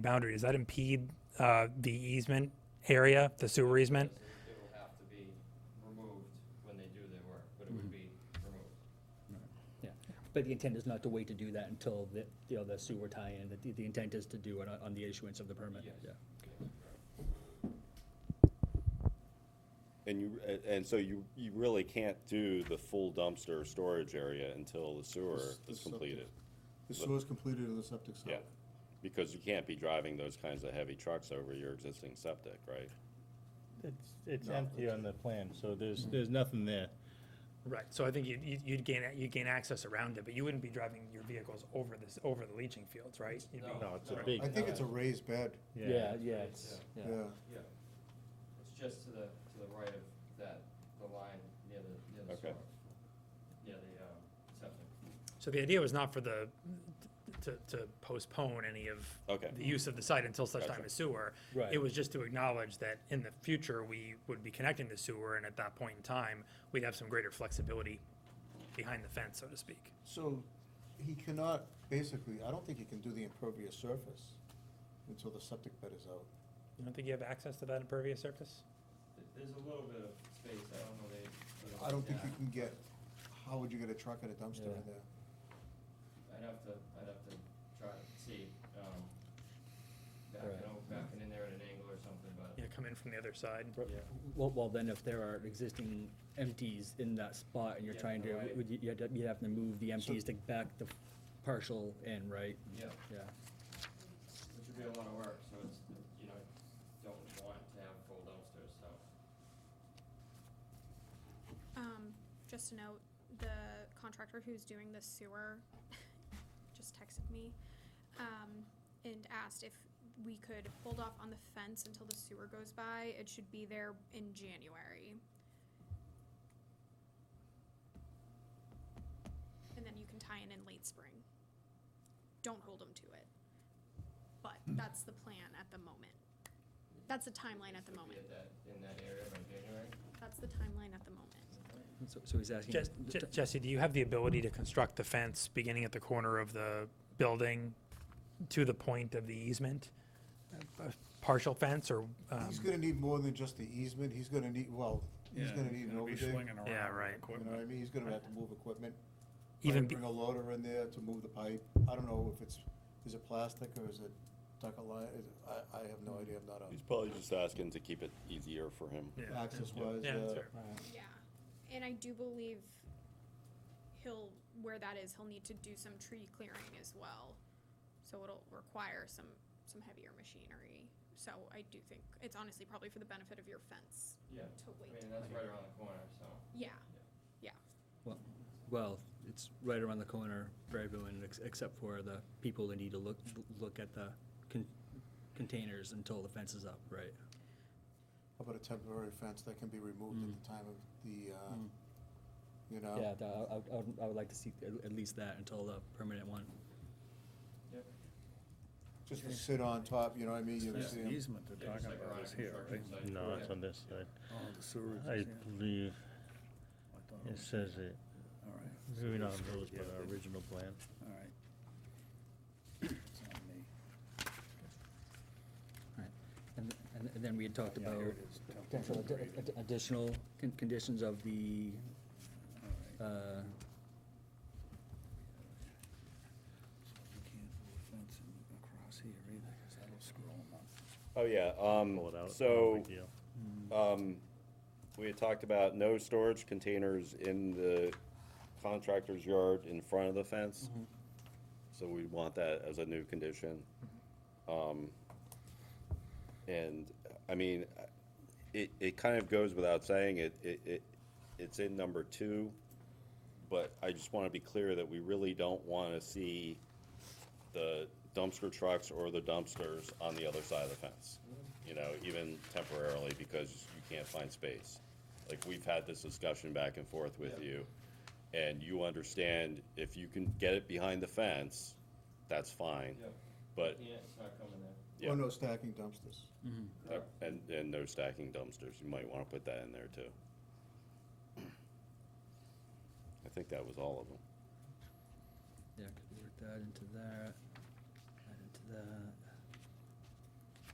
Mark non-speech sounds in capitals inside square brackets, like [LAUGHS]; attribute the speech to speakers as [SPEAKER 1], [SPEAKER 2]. [SPEAKER 1] boundary, does that impede uh, the easement area, the sewer easement?
[SPEAKER 2] It'll have to be removed when they do their work, but it would be removed.
[SPEAKER 3] Yeah, but the intent is not to wait to do that until the, you know, the sewer tie-in, the, the intent is to do it on, on the issuance of the permit,
[SPEAKER 2] Yes.
[SPEAKER 3] yeah.
[SPEAKER 4] And you, a- and so you, you really can't do the full dumpster storage area until the sewer
[SPEAKER 5] This- this
[SPEAKER 4] is
[SPEAKER 5] septic-
[SPEAKER 4] completed.
[SPEAKER 5] The sewer's completed and the septic's out.
[SPEAKER 4] Yeah, because you can't be driving those kinds of heavy trucks over your existing septic, right?
[SPEAKER 6] It's, it's empty on the plan, so there's, there's nothing there.
[SPEAKER 1] Right, so I think you'd, you'd- you'd gain, you'd gain access around it, but you wouldn't be driving your vehicles over this, over the leaching fields, right? You'd be-
[SPEAKER 6] No, it's a
[SPEAKER 1] Right.
[SPEAKER 6] big.
[SPEAKER 5] I think it's a raised bed,
[SPEAKER 3] Yeah, yeah, it's, yeah.
[SPEAKER 5] yeah.
[SPEAKER 2] Yeah. It's just to the, to the right of that, the line near the, near the
[SPEAKER 4] Okay.
[SPEAKER 2] sewer. Yeah, the, um, septic.
[SPEAKER 1] So the idea was not for the, to, to postpone any of
[SPEAKER 4] Okay.
[SPEAKER 1] the use of the site until such time
[SPEAKER 4] Gotcha.
[SPEAKER 1] as sewer.
[SPEAKER 3] Right.
[SPEAKER 1] It was just to acknowledge that in the future, we would be connecting the sewer, and at that point in time, we'd have some greater flexibility behind the fence, so to speak.
[SPEAKER 5] So he cannot, basically, I don't think he can do the impervious surface until the septic bed is out.
[SPEAKER 1] You don't think you have access to that impervious surface?
[SPEAKER 2] Th- There's a little bit of space, I don't know, they. they-
[SPEAKER 5] I don't think you
[SPEAKER 2] Yeah.
[SPEAKER 5] can get, how would you get a truck and a dumpster in there?
[SPEAKER 2] I'd have to, I'd have to try to see, um,
[SPEAKER 3] Right.
[SPEAKER 2] backing, out- backing in there at an angle or something, but.
[SPEAKER 1] You know, come in from the other side.
[SPEAKER 3] Well, well, then if there are existing empties in that spot and you're
[SPEAKER 2] Yeah,
[SPEAKER 3] trying to,
[SPEAKER 2] right.
[SPEAKER 3] would you, you'd have- you'd have to move the empties to back the partial in, right?
[SPEAKER 2] Yeah,
[SPEAKER 3] Yeah,
[SPEAKER 2] which would be a lot of work, so it's, you know, don't want to have full dumpsters, so.
[SPEAKER 7] Um, just a note, the contractor who's doing the sewer [LAUGHS] just texted me, um, and asked if we could hold off on the fence until the sewer goes by. It should be there in January. And then you can tie in in late spring. Don't hold them to it. But that's the plan at the moment. That's the timeline at the
[SPEAKER 2] Should be
[SPEAKER 7] moment.
[SPEAKER 2] at that, in that area by January.
[SPEAKER 7] That's the timeline at the moment.
[SPEAKER 3] so, so he's asking.
[SPEAKER 1] Jes- Je- Jesse, do you have the ability to construct the fence beginning at the corner of the building to the point of the easement? A- a Partial fence or, um,
[SPEAKER 5] He's gonna need more than just the easement, he's gonna need, well, he's gonna need an overdig.
[SPEAKER 1] Yeah, right.
[SPEAKER 5] You know what I mean, he's gonna have to move equipment.
[SPEAKER 1] Even
[SPEAKER 5] Might
[SPEAKER 1] be-
[SPEAKER 5] Bring a loader in there to move the pipe, I don't know if it's, is it plastic or is it ductile line, is it, I, I have no idea, I'm not
[SPEAKER 4] He's
[SPEAKER 5] a
[SPEAKER 4] probably just asking to keep it easier for him.
[SPEAKER 1] yeah,
[SPEAKER 5] access wise,
[SPEAKER 1] yeah, that's
[SPEAKER 5] uh,
[SPEAKER 1] fair.
[SPEAKER 7] Yeah, and I do believe he'll, where that is, he'll need to do some tree clearing as well. So it'll require some, some heavier machinery. So I do think, it's honestly probably for the benefit of your fence
[SPEAKER 2] Yeah,
[SPEAKER 7] to
[SPEAKER 2] I
[SPEAKER 7] wait.
[SPEAKER 2] mean, that's right around the corner, so.
[SPEAKER 7] Yeah,
[SPEAKER 3] Well- Well, it's right around the corner for everyone, ex- except for the people that need to look, look at the con- containers until the fence is up, right?
[SPEAKER 5] How about a temporary fence that can be removed
[SPEAKER 8] Mm.
[SPEAKER 5] at the time of the, uh,
[SPEAKER 3] Mm.
[SPEAKER 5] you
[SPEAKER 8] Oh.
[SPEAKER 5] know?
[SPEAKER 3] Yeah, tha- I, I would- I would like to see at- at least that until the permanent one.
[SPEAKER 5] Just to sit on top, you know what I mean? You
[SPEAKER 8] It's
[SPEAKER 5] see
[SPEAKER 8] the
[SPEAKER 5] 'em.
[SPEAKER 8] easement they're
[SPEAKER 2] Yeah, just
[SPEAKER 8] talking
[SPEAKER 2] like
[SPEAKER 8] about
[SPEAKER 2] around
[SPEAKER 8] is
[SPEAKER 2] a
[SPEAKER 8] here, right?
[SPEAKER 2] construction site.
[SPEAKER 6] No,
[SPEAKER 2] Yeah.
[SPEAKER 6] it's on this side.
[SPEAKER 8] Oh, the sewers.
[SPEAKER 6] I
[SPEAKER 8] yeah.
[SPEAKER 6] believe
[SPEAKER 8] I thought it
[SPEAKER 6] it
[SPEAKER 8] was-
[SPEAKER 6] says it,
[SPEAKER 8] All right,
[SPEAKER 6] maybe not on those, but our original plan.
[SPEAKER 8] all right. It's on me.
[SPEAKER 3] Right. And, and- and then we had talked
[SPEAKER 8] Yeah,
[SPEAKER 3] about
[SPEAKER 8] here it is, temporary
[SPEAKER 3] potential addi-
[SPEAKER 8] grade.
[SPEAKER 3] addi- additional con- conditions of the,
[SPEAKER 8] All right.
[SPEAKER 3] uh,
[SPEAKER 8] So You can't put a fence in across here either, 'cause that'll screw 'em up.
[SPEAKER 4] Oh, yeah, um,
[SPEAKER 6] Pull it out. no
[SPEAKER 4] so,
[SPEAKER 6] big deal.
[SPEAKER 4] um, we had talked about no storage containers in the contractor's yard in front of the fence. So we want that as a new condition. Um, and, I mean, it, it kind of goes without saying, it, it, it, it's in number two. But I just wanna be clear that we really don't wanna see the dumpster trucks or the dumpsters on the other side of the fence. You know, even temporarily, because you can't find space. Like, we've had this discussion back and forth with you. And you understand, if you can get it behind the fence, that's fine.
[SPEAKER 2] Yeah.
[SPEAKER 4] But,
[SPEAKER 2] Yeah, it's not coming there.
[SPEAKER 5] Oh,
[SPEAKER 4] yeah,
[SPEAKER 5] no, stacking dumpsters.
[SPEAKER 4] and, and no stacking dumpsters, you might wanna put that in there too. I think that was all of them.
[SPEAKER 3] yeah, could work that into that, that into that.